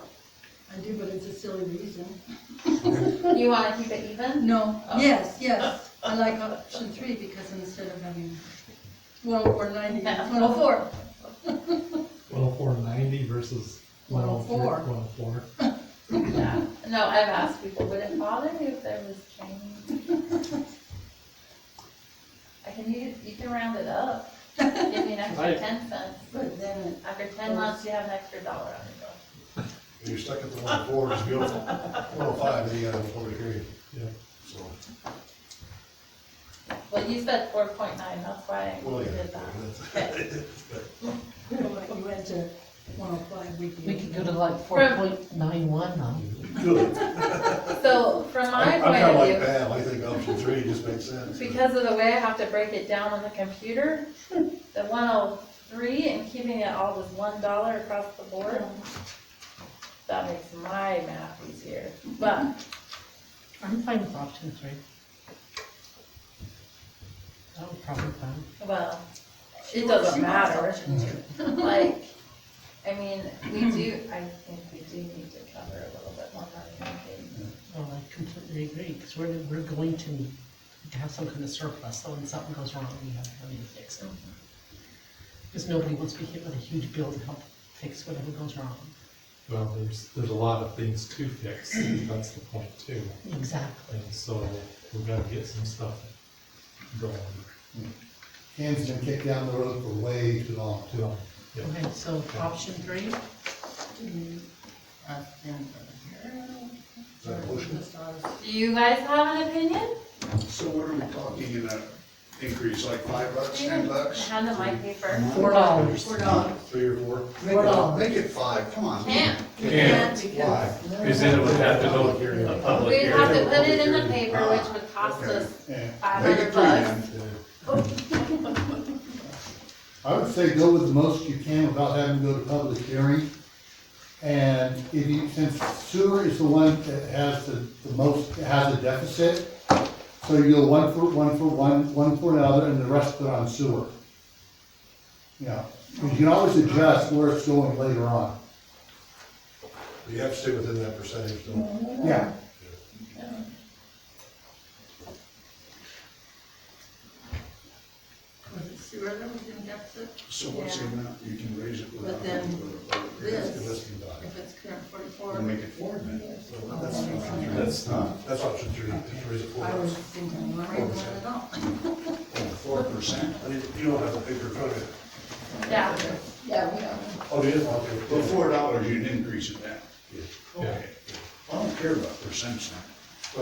I do, but it's a silly reason. You wanna keep it even? No, Oh. yes, yes, I like option three because instead of having one oh or ninety, it's Well, four. One oh four ninety versus one oh three, 104. one oh four. Yeah. No, I've asked people, would it bother you if there was change? I can, you, you can round it up, give me an extra Right. ten cents, But then it- after ten months, you have an extra dollar on your bill. You're stuck at the one four, it's beautiful. One oh five, then you got a four degree. Yeah. So, Well, you said four point nine, that's why I well, yeah. did that. Okay. you know, like you went to one oh five weekly. We could go to like four point nine one um, now. Good. So from my I'm point kinda of like view, Pam, I think option three just makes sense. because of the way I have to break it down on the computer, the one oh three and keeping it all with one dollar across the board, that makes my math easier. But I'm fine with option three. That would probably fine. well, She it wants- doesn't she wants matter. option two. Like, I mean, we do, I think we do need to cover a little bit more money. I think. Well, I completely agree, because we're, we're going to need to have some kind of surplus, so when something goes wrong, we have money to fix it. Because nobody wants to be hit with a huge bill to help fix whatever goes wrong. Well, there's, there's a lot of things to fix, that's the point too. Exactly. And so we gotta get some stuff going. Hands been kicked down the road for way too long. you know. Yeah. Okay, so option three, Is that a motion? Do you guys have an opinion? So what are we talking in that increase, like five bucks, ten bucks? Hand them my paper. four dollars. We're not. Three or four? Four dollars. Make it five, come on. Can't. Can't Why? because- Present it would have to go to a public We'd have to hearing. put it in the paper, which would cost Okay. us Yeah. five Make it hundred bucks. three then. I would say go with the most you can without having to go to public hearing. And if you, since sewer is the one that has the, the most, has a deficit, so you go one for, one for one, one for another, and the rest of it on sewer. Yeah, 'cause you can always adjust where it's going later on. You have to stay within that percentage though. Yeah. Was it sewer that was in deficit? So what's the Yeah. amount you can raise it without? But then having to go to public hearing? This. Unless you die. If it's current Then forty-four, Make it four then. That's not, that's not, that's option three, it's raise it four. I was thinking, I don't know at all. Four percent. I mean, You don't have the paper in front of you. Yeah, Yeah, we don't. Oh, you didn't want to. Well, four dollars, you'd increase it then. Yeah. Okay. I don't care about percents now.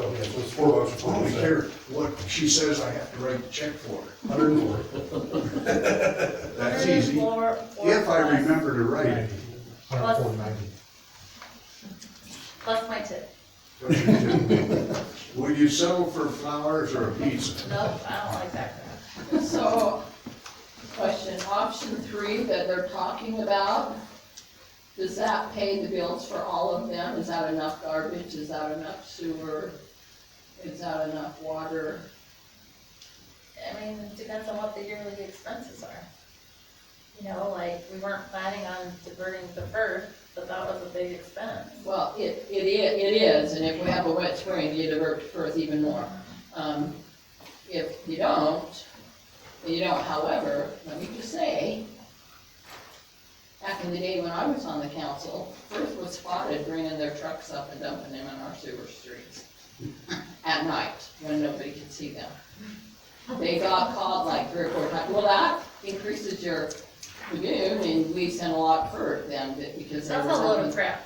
Well, yeah, so it's four bucks for I forty only cents. care what she says I have to write the check for. Hundred and four. That's easy. Or- or If I plus- remember to write it. Ninety, one oh four ninety. Plus my tip. Would you settle for flowers or a pizza? Nope, I don't like that. So, question, option three that they're talking about, does that pay the bills for all of them? Is that enough garbage? Is that enough sewer? Is that enough water? I mean, it depends on what the yearly expenses are. You know, like, we weren't planning on diverting the first, but that was a big expense. Well, it, it is, it is, and if we have a wet spring, you divert to Perth even more. Um, if you don't, you don't, however, let me just say, back in the day when I was on the council, Perth was spotted bringing their trucks up and dumping them in our sewer streets at night, when nobody could see them. They got called like three or four times, well, that increases your lagoon, and we sent a lot of Perth then, because they were That's a load of crap.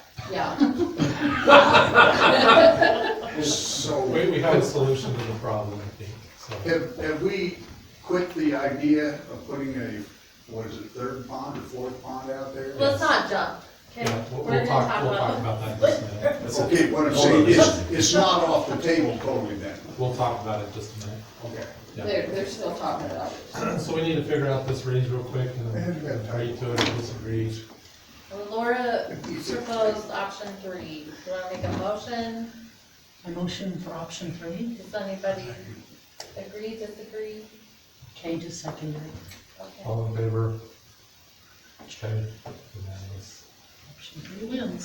yeah. So. We, we have a solution to the problem, I think, so. Have, have we quit the idea of putting a, what is it, third pond or fourth pond out there? Let's not jump, okay? Yeah, we'll, We're gonna we'll talk, we'll talk about that just a minute. That's it. Okay, what I'm saying is, it's not off the table totally then. We'll talk about it just a minute. Okay. Yeah. They're, they're still talking about it. So we need to figure out this range real quick and then agree to it, or disagree. Well, Laura proposed option three. Do you wanna make a motion? A motion for option three, Does anybody agree, disagree? Kay just seconded it. Okay. All in favor? Okay, unanimous. Option three wins.